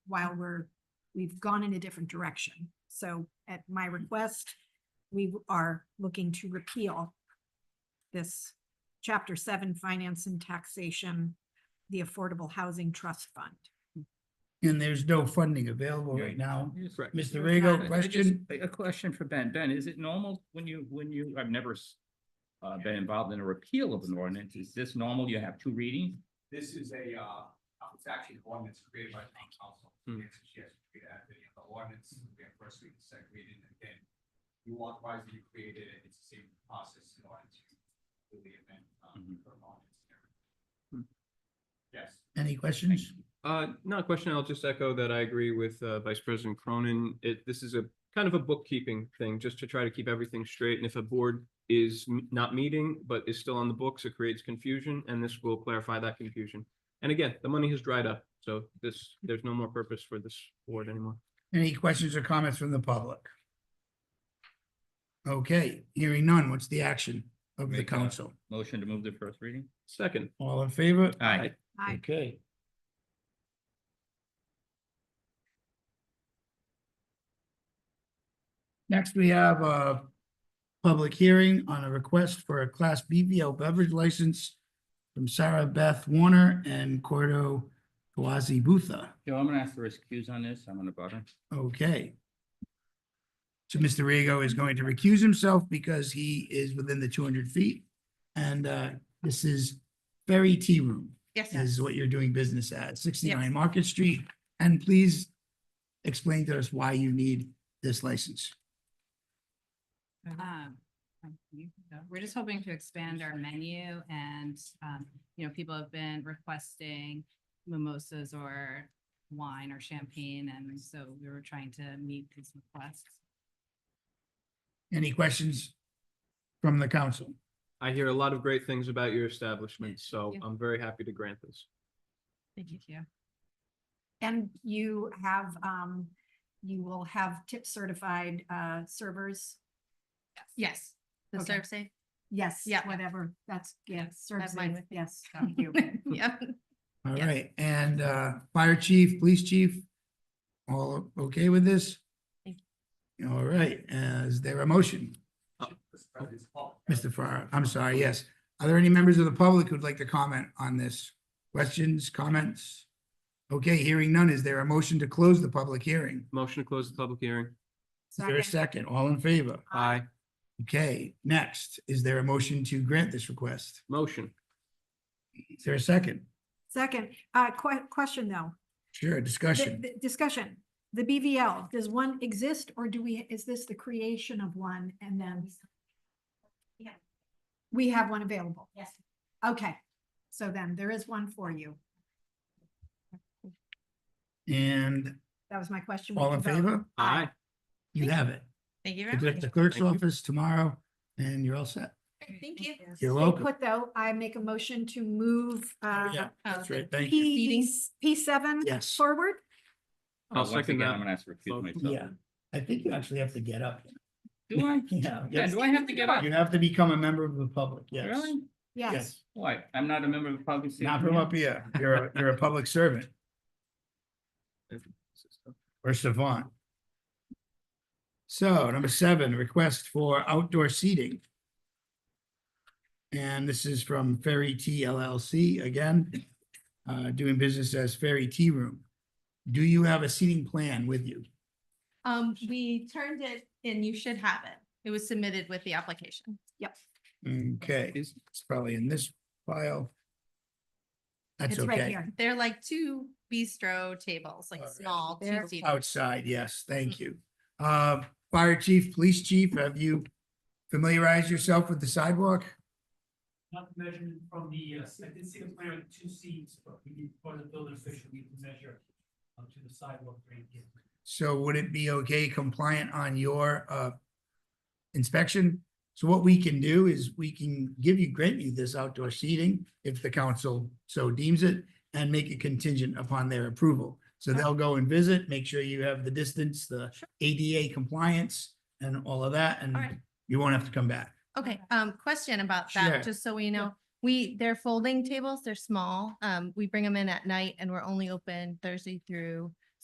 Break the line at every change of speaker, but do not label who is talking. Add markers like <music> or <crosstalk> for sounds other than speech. while we're, we've gone in a different direction. So at my request, we are looking to repeal this chapter seven, finance and taxation, the Affordable Housing Trust Fund.
And there's no funding available right
Right.
now.
Yes.
Correct.
Mr.
I-
Rego,
I
question?
just- A a question for Ben. Ben, is it normal when you, when you, I've never s- uh, been involved in a repeal of an ordinance. Is this normal? You have two readings?
This is a, uh, it's actually an ordinance created by the town council.
Hmm.
Yes, yes, we have the the ordinance, we have first reading, second reading, and then you authorize that you created it, it's the same process in order to do the event, um,
Mhm.
for an ordinance. and
Mm-hmm. Hmm.
everything. Yes.
Any questions?
Uh, not a question. I'll just echo that I agree with uh, Vice President Cronin. It, this is a kind of a bookkeeping thing, just to try to keep everything straight. And if a board is m- not meeting, but is still on the books, it creates confusion, and this will clarify that confusion. And again, the money has dried up, so this, there's no more purpose for this board anymore.
Any questions or comments from the public? Okay, hearing none. What's the action of the
Make a-
council?
Motion to move the first reading?
Second,
All in favor?
Aye.
Aye.
Okay. Next, we have a public hearing on a request for a Class BBL beverage license from Sarah Beth Warner and Cordo Kawazi Butha.
Joe, I'm gonna ask for excuse on this. I'm gonna bother.
Okay. So Mr. Rego is going to recuse himself because he is within the two hundred feet. And uh, this is Ferry Tea Room
Yes,
is what you're doing business at, sixty-nine Market Street. And please explain to us why you need this license.
um, um, you can go. we're just hoping to expand our menu and, um, you know, people have been requesting mimosas or wine or champagne, and so we were trying to meet these requests.
Any questions from the council?
I hear a lot of great things about your establishment, so
Yeah.
I'm very happy to grant this.
Thank you.
And you have, um, you will have tip certified, uh, servers.
Yes, the
Okay.
serve safe.
Yes.
Yeah.
Whatever, that's, yeah, serves,
mine
it,
with
yes,
so.
thank <laughs> you.
Yeah.
All
Yes.
right, and uh, fire chief, police chief, all okay with this?
Thank
All right, uh, is there a motion?
Mr. President, it's public.
Mr. Farrar, I'm sorry, yes. Are there any members of the public who'd like to comment on this? Questions, comments? Okay, hearing none. Is there a motion to close the public hearing?
Motion to close the public hearing.
Is there a second? All in favor?
Aye.
Okay, next, is there a motion to grant this request?
Motion.
Is there a second?
Second, uh, que- question though.
Sure,
The-
discussion.
the Discussion, the BVL, does one exist or do we, is this the creation of one and then?
Yeah.
We have one available.
Yes.
Okay, so then there is one for you.
And
That was my question. We
all
can
in
vote.
favor?
Aye.
You have it.
<laughs> Thank you
It's at the clerk's
Thank you.
office tomorrow and you're all set.
Thank you.
Stay
You're welcome.
Put though, I make a motion to move, uh,
Yeah,
Oh,
that's right. Thank you.
P, E P seven
Yes.
forward.
Uh,
I'll
once
second
again,
that.
I'm gonna ask for excuse
Vote.
myself.
Yeah, I think you actually have to get up. <laughs>
Do I?
Yeah.
Yeah, do I have to get up?
You have to become a member of the public, yes.
Really?
Yes.
Why? I'm not a member of the public. safety
Not from
yet?
up
<laughs>
here. You're, a- you're a public servant or savant. So number seven, request for outdoor seating. And this is from Ferry Tea LLC again, uh, doing business as Ferry Tea Room. Do you have a seating plan with you?
Um, we turned it and you should have it. It was submitted with the application.
Yep.
Okay,
Is-
it's probably in this file. That's
It's right
okay.
here.
They're like two bistro tables, like
Alright.
small,
They're-
two seater.
Outside, yes, thank you. Uh, fire chief, police chief, have you familiarized yourself with the sidewalk?
not measured from the, uh, I did see the plan with two seams, but we need, for the building official, we can measure up to the sidewalk grade here.
So would it be okay compliant on your uh inspection? So what we can do is we can give you, grant you this outdoor seating if the council so deems it and make it contingent upon their approval. So they'll go and visit, make sure you have the distance, the ADA compliance and all of that,
Alright.
and you won't have to come back.
Okay, um, question about that,
Sure.
just so we know. We, they're folding tables, they're small. Um, we bring them in at night and we're only open Thursday through